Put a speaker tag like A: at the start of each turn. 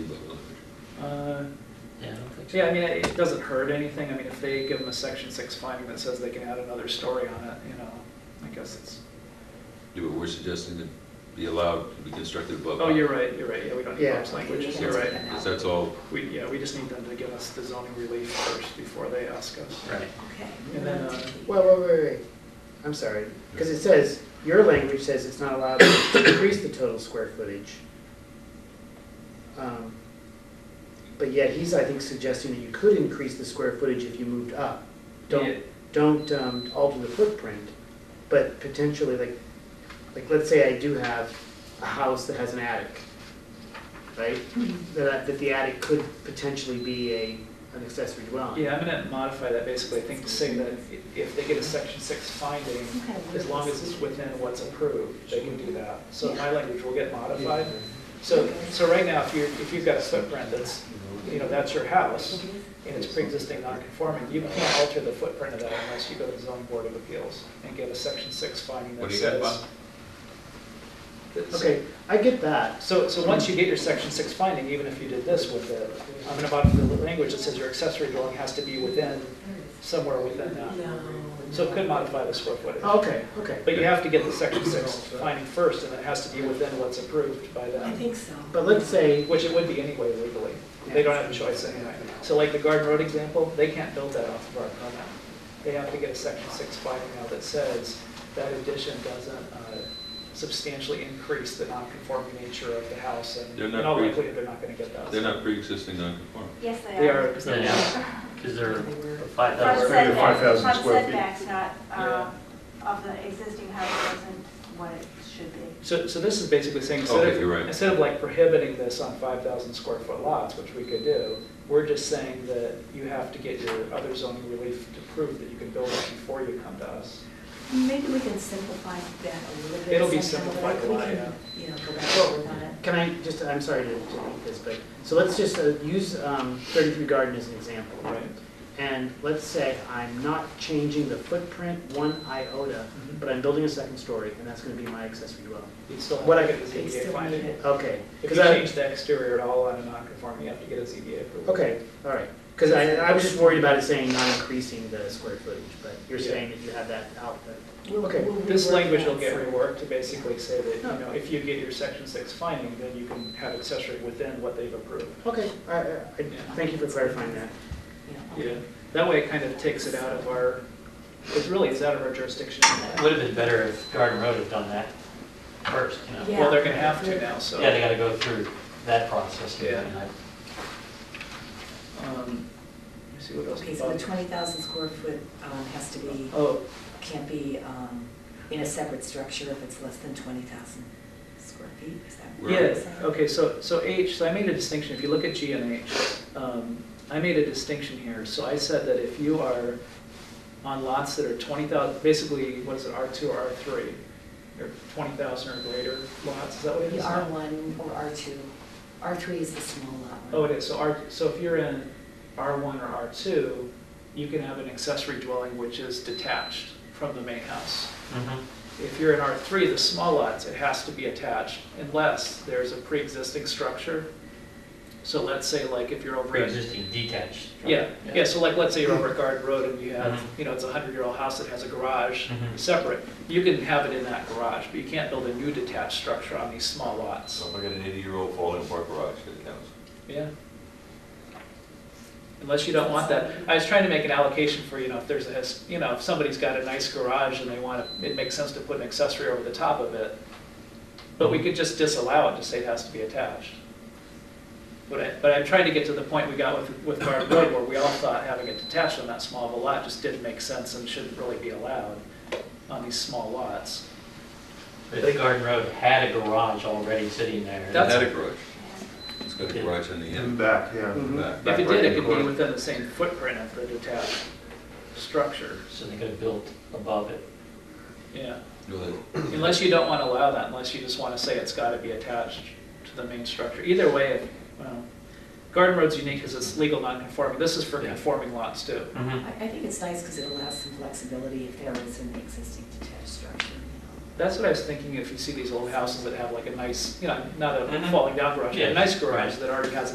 A: Uh,
B: Yeah, I don't think so.
A: Yeah, I mean, it it doesn't hurt anything. I mean, if they give them a section six finding that says they can add another story on it, you know, I guess it's,
C: Do what we're suggesting to be allowed to be constructed above.
A: oh, you're right, you're right, yeah, we don't need
D: Yeah.
A: Bob's language,
C: Yeah,
A: you're right.
C: Because that's all,
A: We, yeah, we just need them to give us the zoning relief first before they ask us.
B: Right.
E: Okay.
A: And then, uh,
D: Well, wait, wait, wait, I'm sorry, because it says, your language says it's not allowed to increase the total square footage. Um, But yet he's, I think, suggesting that you could increase the square footage if you moved up.
A: Yeah.
D: Don't, don't um, alter the footprint, but potentially, like, like, let's say I do have a house that has an attic, right? That, I- that the attic could potentially be a, an accessory dwelling.
A: yeah, I'm gonna modify that basically, I think, to say that if- if they get a section six finding,
E: Okay.
A: as long as it's within what's approved, they can do that. So my language will get modified. So, so right now, if you're, if you've got a footprint that's, you know, that's your house, and it's pre-existing non-conforming, you can't alter the footprint of that unless you go to the zoning board of appeals and get a section six finding
C: What
A: that
C: do you got,
A: says. That-
D: Okay, I get that,
A: So, so once you get your section six finding, even if you did this with it, I'm gonna modify the language that says your accessory dwelling has to be within, somewhere within that. So it could modify the square footage.
D: okay, okay.
A: But you have to get the section six finding first, and it has to be within what's approved by
E: I
A: them,
E: think so.
D: But let's say,
A: which it would be anyway legally. They don't have a choice anyway. So like the Garden Road example, they can't build that off of our permit. They have to get a section six finding now that says that addition doesn't uh, substantially increase the non-conforming nature of the house, and
C: They're
A: in
C: not
A: all
C: pre-
A: likelihood, they're not gonna get that.
C: they're not pre-existing non-conforming.
F: Yes, they are.
A: They are, because
B: They
A: they're,
B: are, because they're five
F: Front
B: thousand.
G: Maybe
F: setback-
G: 5,000
F: front
G: square feet.
F: setbacks, not, um, of the existing house isn't what it should be.
A: so, so this is basically saying, instead
C: Okay,
A: of,
C: you're right.
A: instead of like prohibiting this on five thousand square foot lots, which we could do, we're just saying that you have to get your other zoning relief to prove that you can build it before you come to us.
E: Maybe we can simplify that a little bit.
A: It'll be
E: somehow,
A: simplified
E: like
A: a
E: we
A: lot,
E: can,
A: yeah.
E: You know, go back and work on it.
D: can I just, I'm sorry to to beat this, but, so let's just uh, use um, 33 Garden as an example.
A: Right.
D: And let's say I'm not changing the footprint one iota,
E: Mm-hmm.
D: but I'm building a second story, and that's going to be my accessory dwelling.
A: You'd still
D: What
A: have
D: I-
A: to get the
E: They
A: ZBA
E: still need
A: finding.
E: it.
D: Okay.
A: If
D: 'cause
A: you
D: I-
A: change the exterior at all on a non-conforming, you have to get a ZBA approval.
D: Okay, all right. Because I, I was just worried about it saying not increasing the square footage, but you're
A: Yeah.
D: saying that you have that out there.
E: We'll-
D: Okay.
E: we'll
A: This
E: rework
A: language
E: that Oh.
A: will get
E: some.
A: reworked to basically say that,
D: No.
A: you know, if you get your section six finding, then you can have accessory within what they've approved.
D: Okay, I, I- I- thank you for clarifying that.
E: Yeah.
A: Yeah, that way it kind of takes it out of our, it's really, it's out of our jurisdiction.
B: It Would have been better if Garden Road had done that first, you know?
A: Well, they're gonna have to now, so.
B: Yeah, they gotta go through that process. and
A: Yeah.
B: then
A: Um, Let me see what else.
E: Okay, so the
A: Bob-
E: 20,000 square foot um, has to be,
A: Oh,
E: can't be um, in a separate structure if it's less than 20,000 square feet, is that what
C: We're-
A: yeah,
E: you're saying?
A: okay, so, so H, so I made a distinction, if you look at G and H, um, I made a distinction here, so I said that if you are on lots that are twenty thousand, basically, what is it, R two or R three? Or twenty thousand or greater lots, is that what it
E: The
A: is?
E: R1 or R2, R3 is the small lot. right?
A: Oh, it is, so R, so if you're in R1 or R2, you can have an accessory dwelling which is detached from the main house.
B: I- Mhm.
A: If you're in R3, the small lots, it has to be attached unless there's a pre-existing structure. So let's say like if you're over. at-
B: Pre-existing detached.
A: Yeah, yeah, so like, let's say you're over at Garden Road and you have,
B: Mhm.
A: you know, it's a hundred-year-old house that has a garage
B: Mhm.
A: separate. You can have it in that garage, but you can't build a new detached structure on these small lots.
C: So if I got an eighty-year-old falling apart garage, that counts.
A: Yeah. Unless you don't want that. I was trying to make an allocation for, you know, if there's a, his- you know, if somebody's got a nice garage and they want, to, it makes sense to put an accessory over the top of it. But we could just disallow it to say it has to be attached. But I, but I'm trying to get to the point we got with, with Garden Road where we all thought having it detached on that small of a lot just didn't make sense and shouldn't really be allowed on these small lots.
B: If Garden Road had a garage already sitting there.
A: That's-
C: Had a garage. It's got a garage on the
G: In
C: end.
G: the back, yeah.
D: Mhm.
C: back.
A: If
G: Back
A: it
G: right
A: did,
G: in
A: it could
G: the
A: be
G: corner.
A: within the same footprint of the detached structure,
B: So they could have built above it.
A: yeah.
C: No, that-
A: Unless you don't want to allow that, unless you just want to say it's got to be attached to the main structure. Either way, well, Garden Road's unique because it's legal non-conforming. This is for
B: Yeah.
A: conforming lots too.
E: I,
B: Mhm.
E: I think it's nice because it allows some flexibility if there is an existing detached structure, you
A: That's what I was thinking if you see these old houses that have like a nice, you know, not a
B: Mhm.
A: falling down garage, but
B: Yeah.
A: a nice garage that already has